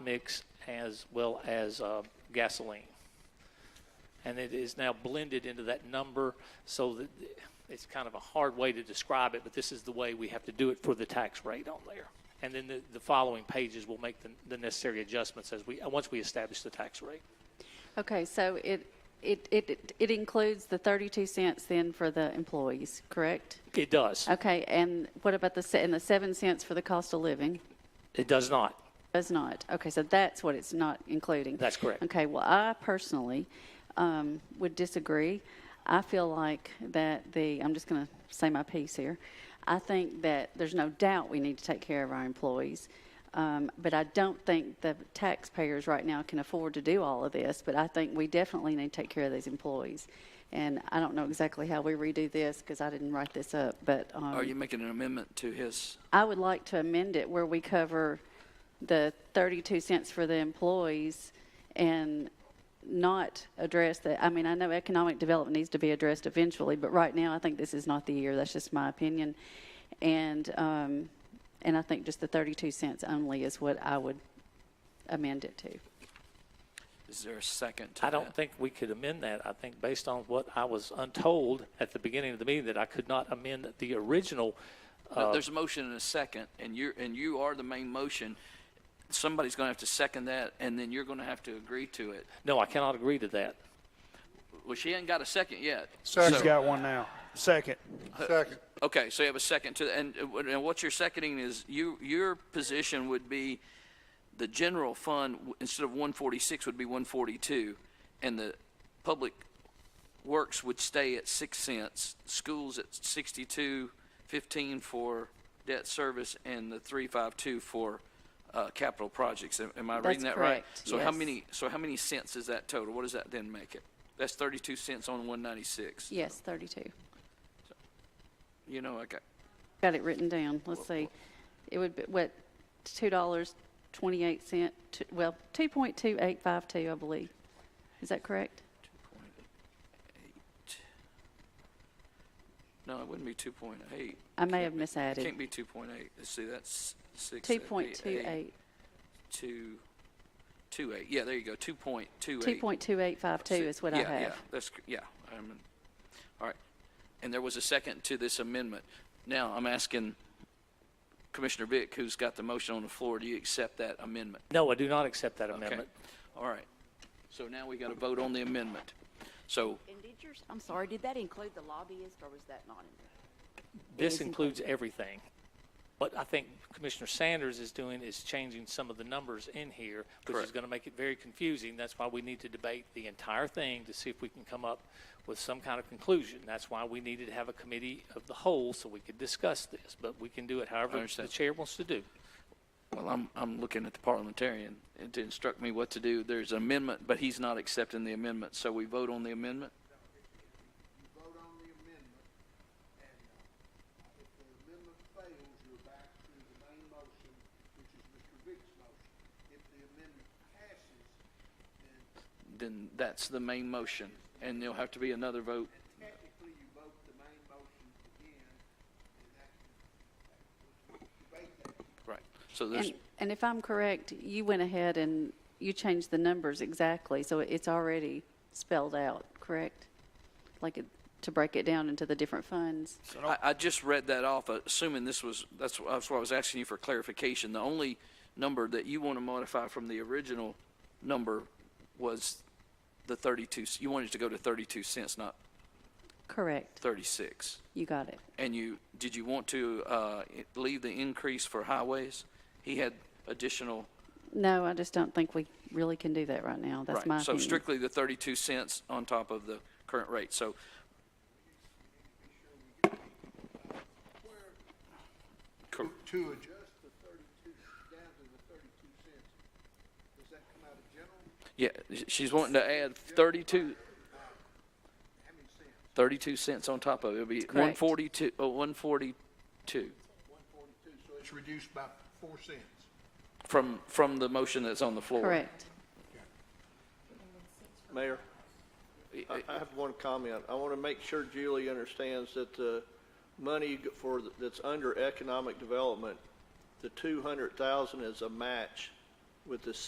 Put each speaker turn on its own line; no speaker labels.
mix as well as uh, gasoline. And it is now blended into that number so that it's kind of a hard way to describe it, but this is the way we have to do it for the tax rate on there. And then the, the following pages will make the, the necessary adjustments as we, uh, once we establish the tax rate.
Okay, so it, it, it, it includes the 32 cents then for the employees, correct?
It does.
Okay, and what about the, se- and the 7 cents for the cost of living?
It does not.
Does not. Okay, so that's what it's not including.
That's correct.
Okay, well, I personally um, would disagree. I feel like that the, I'm just going to say my piece here. I think that there's no doubt we need to take care of our employees. Um, but I don't think the taxpayers right now can afford to do all of this. But I think we definitely need to take care of these employees. And I don't know exactly how we redo this because I didn't write this up. But um,
Mm-hmm.
Are you making an amendment to his?
I would like to amend it where we cover the 32 cents for the employees and not address that. I mean, I know economic development needs to be addressed eventually, but right now, I think this is not the year. That's just my opinion. And, um, and I think just the 32 cents only is what I would amend it to.
Is there a second to
I don't
that?
think we could amend that. I think based on what I was untold at the beginning of the meeting, that I could not amend the original.
No, Uh, There's a motion and a second, and you're, and you are the main motion. Somebody's going to have to second that, and then you're going to have to agree to it.
No, I cannot agree to that.
Well, she ain't got a second yet.
She's got one now. Second.
Second.
Okay, so you have a second to, and, and what you're seconding is you, your position would be the general fund, w- instead of 146, would be 142, and the public works would stay at 6 cents, schools at 62.15 for debt service, and the 352 for uh, capital projects. Am- Am I reading
That's
that right?
correct,
So how
yes.
many, so how many cents is that total? What does that then make it? That's 32 cents on 196.
Yes, 32.
You know, I got,
Got it written down. Let's see. It would be, what, $2.28, t- well, 2.2852, I believe. Is that correct?
No, it wouldn't be two point eight.
I may have misadded.
It can't be two point eight. Let's see, that's six.
Two point two eight,
Two, two eight. Yeah, there you go. Two point two
two
eight.
point two eight five two is what I
Yeah, yeah,
have.
that's, cr- yeah. I'm, in- all right. And there was a second to this amendment. Now, I'm asking Commissioner Vick, who's got the motion on the floor, do you accept that amendment?
No, I do not accept that
Okay.
amendment.
All right. So now we got to vote on the amendment. So
And did yours, I'm sorry, did that include the lobbyist or was that not in there?
This includes everything. What I think Commissioner Sanders is doing is changing some of the numbers in here, which is
Correct.
going to make it very confusing. That's why we need to debate the entire thing to see if we can come up with some kind of conclusion. That's why we needed to have a committee of the whole so we could discuss this, but we can do it however the
understand.
chair wants to do.
Well, I'm, I'm looking at the parliamentarian to instruct me what to do. There's an amendment, but he's not accepting the amendment, so we vote on the amendment?
Vote on the amendment, and uh, if the amendment fails, you're back to the main motion, which is Mr. Vick's motion. If the amendment passes, then
Then that's the main motion, and there'll have to be another vote.
technically you vote the main motion again, and that, that- we can debate that.
Right. So there's,
And, and if I'm correct, you went ahead and you changed the numbers exactly, so it's already spelled out, correct? Like it, to break it down into the different funds?
I, I just read that off, assuming this was, that's, wh- that's why I was asking you for clarification. The only number that you want to modify from the original number was the 32, c- you wanted to go to 32 cents, not
Correct,
36.
you got it.
And you, did you want to uh, i- leave the increase for highways? He had additional,
No, I just don't think we really can do that right now, that's my
right, so
opinion.
strictly the 32 cents on top of the current rate. So
To adjust the thirty-two, down to the thirty-two cents, does that come out of general,
Yeah, sh- she's wanting to add 32,
how many cents?
32 cents on top of it. It'll be
correct.
142, oh, 142
One forty-two, so it's reduced by four cents.
from, from the motion that's on the floor.
Correct.
Mayor,
I-
I
I-
I have one comment. I want to make sure Julie understands that the money g- for, th- that's under economic development, the 200,000 is a match with the